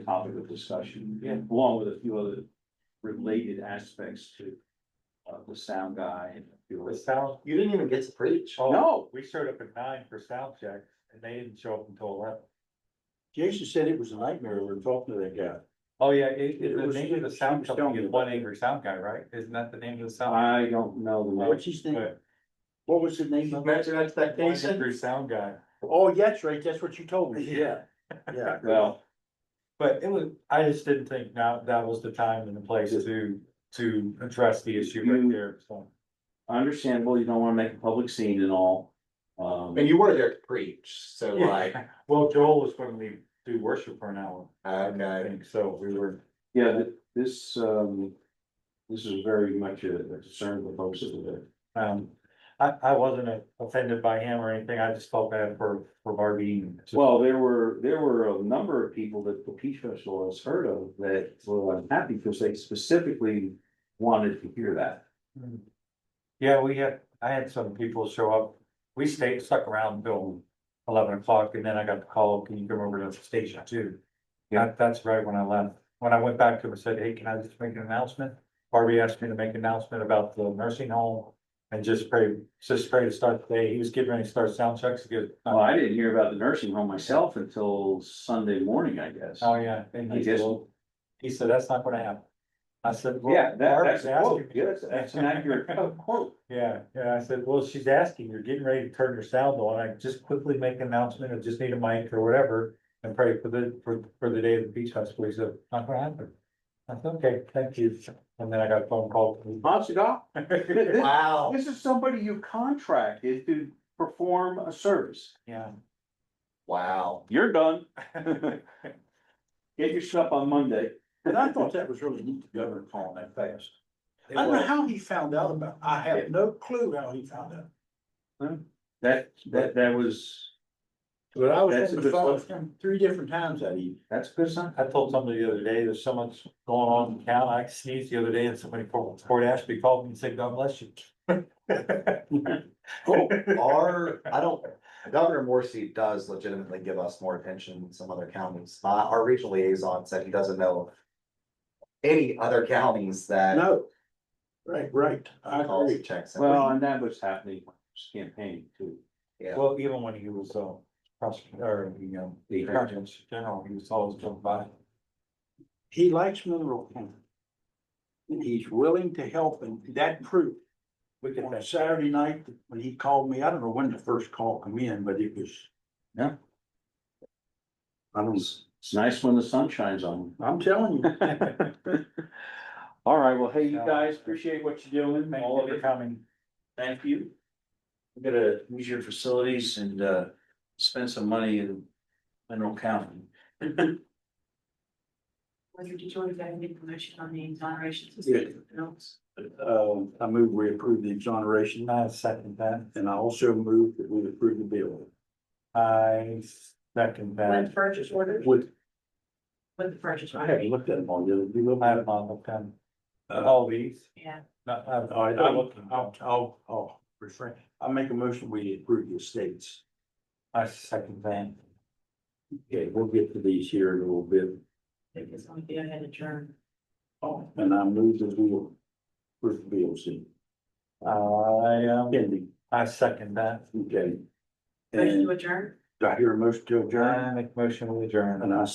discussion, along with a few other related aspects to uh, the sound guy and a few The other. sound, You didn't even get to preach. Oh. No, we showed up at nine for sound check and they didn't show up until eleven. Jason said it was a nightmare. We were talking to that guy. Oh, yeah, it, It it, the was- name of the she sound was telling company me Uh, is about One Angry Sound Guy, right? Isn't that the name of the sound? I don't know the name. What's his name? Good. What was the name of it? One One Angry- Angry Sound Guy. Oh, that's right. That's what you told me. Yeah. Oh, Yeah. Well, But it was, I just didn't think now that was the time and the place to, to address the issue Mm-hmm. right You- there, so. understandable, you don't wanna make a public scene and all. Um, And you were there to preach, so like, Well, Joel was going to do worship for an hour, I okay, think, so we were, yeah, th- this, um, this is very much a a concern for folks that are there. um, I, I wasn't offended by him or anything, I just felt bad for, for Barbie. Well, there were, there were a number of people that the Peach Festival has heard of that were unhappy because they specifically wanted to hear that. Yeah, we had, I had some people show up, we stayed, stuck around until eleven o'clock, and then I got the call, can you come over to the station too? Yeah, that's right when I left, when I went back to him and said, hey, can I just make an announcement? Barbie asked me to make an announcement about the nursing home and just pray, just pray to start the day, he was getting ready to start sound checks, he goes. "Oh, Well, I didn't hear about the nursing home myself until Sunday morning, I guess. Uh, Oh, yeah, and I he guess- said, "Well," he said, that's not gonna happen. I said. "Well, Yeah, that, Barbie's that's a asking quote, me." yes, that's an accurate quote- quote. Yeah, yeah, I said, well, she's asking, you're getting ready to turn your sound on, I just quickly make an announcement, I just need a mic or whatever. And pray for the, for, for the day of the beach festival, he said, not gonna happen. I said, okay, thank you, and then I got a phone call. Honest to God, from- Wow. this is somebody you contracted to perform a service. Yeah. wow. You're done. Get your stuff on Monday. And I thought that was really neat, the governor calling that fast. I don't know how he found out about, I have no clue how he found out. That, that, that was, Hmm. But I That's was on a the good phone look. with him three different times that evening. that's a good sign. I told somebody the other day, there's so much going on in town, I sneezed the other day and somebody from Port Ashby called me and said, God bless you. Our, I don't, Governor Morsi does legitimately give us more attention than some other counties. My, our regional liaison said he doesn't know. of Any other counties that No. Right, right. I calls agree. and checks. in. Well, and that was happening when he was campaigning too. Yeah. Well, even when he was, uh, prosecutor, or, you know, the attorney general, he was always coming by. He likes Mineral County. And he's willing to help and that proved We could, on Saturday night when he called me. I don't know when the first call come in, but it was. Yeah. I don't, It's it's nice when the sun shines on. I'm telling you. All right, well, hey, you guys, appreciate what you're doing, thank all you of for you. coming. Thank you. We gotta use your facilities and uh spend some money in Mineral County. Whether did you already get any information on the exoneration system? No. Uh, I move we approve the exoneration I second that. and I also move that we approve the bill I second With that. purchase orders, with, with the purchase I order, haven't looked at them all yet. Have you looked I at have them? not looked at Uh, all these. yeah. No, I've- All right, I'm I'll, looking. I'll, oh, I'll, I'll refrain. I make a motion, we approve the estates. I second that. Okay, we'll get to these here in a little bit. Because I'm gonna head adjourn. Oh, and I move that we approve the bills in I, um, pending, I second that. okay? Motion to And adjourn? do I hear a motion to adjourn? I make motion with adjourn. And I